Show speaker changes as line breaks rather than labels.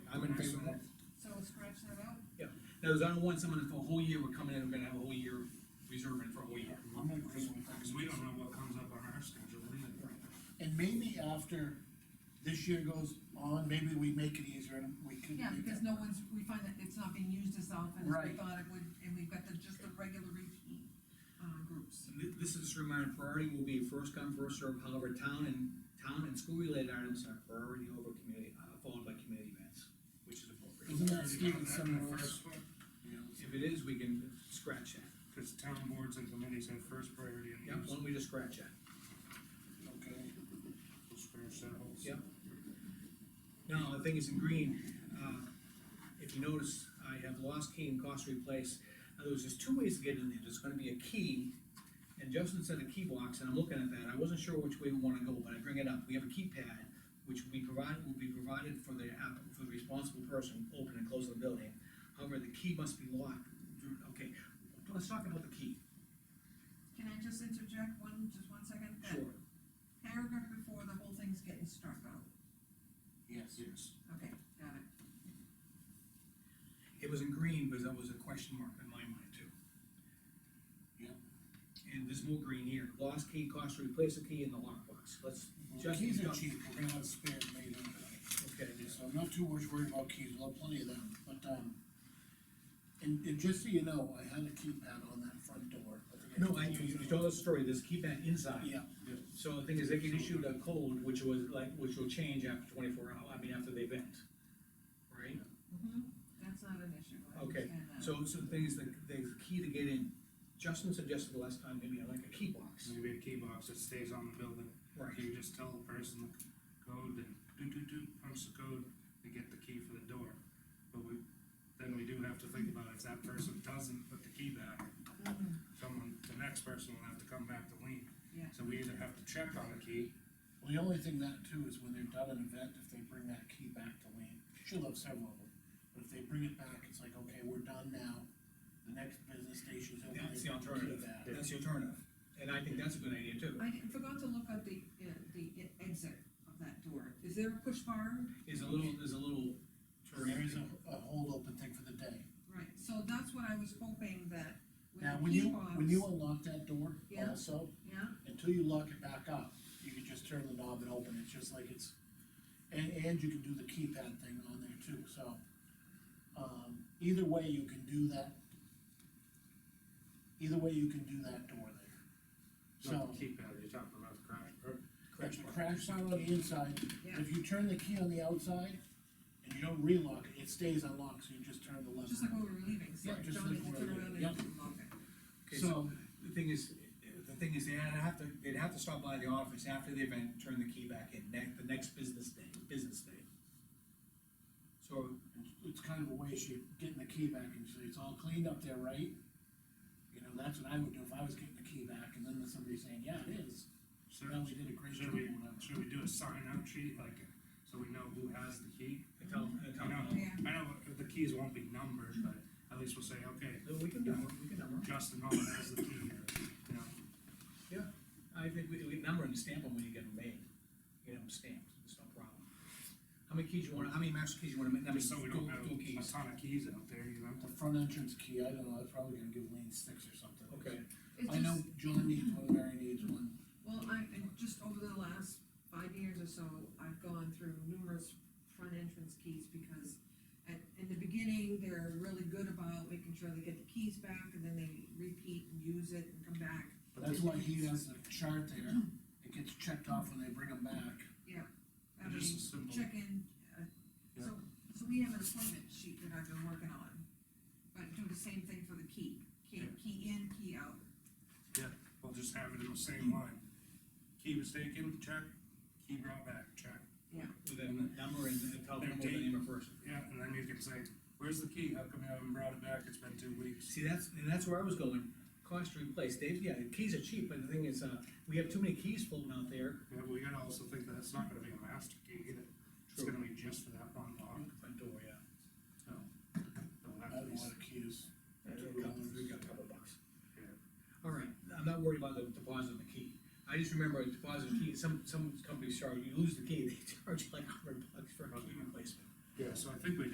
In other words, I don't want someone that for a whole year, we're coming in, we're gonna have a whole year reserve in for a whole year.
I'm gonna agree with that.
Cause we don't know what comes up on our schedule either.
And maybe after this year goes on, maybe we make it easier and we can.
Yeah,
make
because
that-
no one's, we find that it's not being used as often as we
Right.
thought it would, and we've got the, just the regular, re- uh, groups.
So thi- This is just a reminder, priority will be first come, first served, however, town and, town and school related items are priority over community, uh, followed by community events, which is appropriate.
Isn't
Already got
that Stephen
that in the
Summerall's?
first one,
If it is, we can scratch that.
Cause town boards and committees have first priority and
Yep, why
use
don't we just scratch that?
Okay,
spare set holes.
Yep. Now, the thing is in green, uh, if you notice, I have lost key and cost replace. In other words, there's two ways to get in there, there's gonna be a key, and Justin said a key box, and I'm looking at that, I wasn't sure which way we wanna go, but I bring it up, we have a keypad, which we provide, will be provided for the app, for the responsible person, open and close the building. However, the key must be locked, okay, let's talk about the key,
Can I just interject one, just one second? That
sure.
Paragraph before, the whole thing's getting struck out,
yes. Yes.
okay, got it.
It was in green, because that was a question mark in my mind too.
Yep.
And there's more green here, lost key costs to replace the key in the lockbox, let's.
Well,
just
keys are cheap, we're gonna have spare made up.
Okay, yes.
So I'm not too much worried about keys, we'll have plenty of them, but, um, and, and just so you know, I had a keypad on that front door.
No, I, you, you told us a story, this keypad inside.
Yeah,
So the thing is, they can issue a code, which was like, which will change after twenty-four hour, I mean, after the event, right?
Mm-hmm. That's not an issue, I
Okay,
understand that.
So, so the thing is, the, the key to get in, Justin suggested the last time, maybe I like a key box.
Maybe a key box that stays on the building,
Right.
you just tell the person the code and do, do, do, punch the code, they get the key for the door. But we, then we do have to think about if that person doesn't put the key back,
Mhm.
someone, the next person will have to come back to lean.
Yeah.
So we either have to check on the key,
well, the only thing that too is when they've done an event, if they bring that key back to Lean, she'll have several of them. But if they bring it back, it's like, okay, we're done now, the next business station's open.
That's
they
the
bring key
alternative,
back.
that's the alternative, and I think that's a good idea too.
I didn't- forgot to look at the, uh, the e- exit of that door, is there a push bar?
is a little, is a little.
There is a, a hold open thing for the day.
Right, so that's what I was hoping that with
Now,
the
when
key
you, when you
box-
unlock that door
Yeah.
also,
Yeah,
until you lock it back up, you can just turn the knob and open it, just like it's, and, and you can do the keypad thing on there too, so. Um, either way, you can do that. Either way, you can do that door there. So,
not the keypad, you're talking about the crash, or
it's a crash sound on the inside,
yeah,
if you turn the key on the outside, and you don't relock it, it stays unlocked, so you just turn the lever.
just like when we were leaving, so
Yeah, just
don't
like
have to
we're
turn around
leaving,
and lock it.
Okay, so, the thing is, the thing is, they'd have to, they'd have to stop by the office after the event, turn the key back in, ne- the next business day, business day. So,
It's- It's kind of a way of shape- getting the key back and say, it's all cleaned up there, right? You know, that's what I would do if I was getting the key back and then somebody's saying, yeah, it is. So
should,
now we did a great
should
job.
we,
or whatever.
should we do a sign out sheet, like, so we know who has the key?
I tell, I
I
tell
know,
Yeah.
I know the keys won't be numbered, but at least we'll say, okay,
No, we can number, we can number.
Justin Holland has the key here, you know,
I think we, we number and stamp them when you get them made, you get them stamped, it's no problem. How many keys you wanna, how many master keys you wanna make, I mean,
just so we
go,
don't have
go
a
keys?
ton of keys out there, you know?
The front entrance key, I don't know, I'm probably gonna give Lean six or something.
Okay.
It's
I know
just-
John needs one, Mary needs one.
Well, I, and just over the last five years or so, I've gone through numerous front entrance keys because at, in the beginning, they're really good about making sure they get the keys back and then they repeat and use it and come back.
But that's why he has the chart there, it gets checked off when they bring them back.
I
It's
mean,
Just a simple,
check in, uh, so, so we have an appointment sheet that I've been working on, but do the same thing for the key, key, key in, key out.
we'll just have it in the same line. Key was taken, check, key brought back, check.
With a number and a tell them
Their
the
date.
name of person.
Yeah, and then you can say, where's the key? How come you haven't brought it back? It's been two weeks.
See, that's, and that's where I was going, cost to replace, Dave, yeah, the keys are cheap, but the thing is, uh, we have too many keys floating out there.
Yeah, we gotta also think that it's not gonna be a master key either. It's
True.
gonna be just for that one lock,
Front door, yeah.
so. it'll have
I
to
don't
be-
know what the key is.
We got- we got a couple bucks.
Yeah.
All right, I'm not worried about the deposit of the key. I just remember a deposit of key, some, some companies charge, you lose the key, they charge like a hundred bucks for a key replacement.
Yeah, so I think we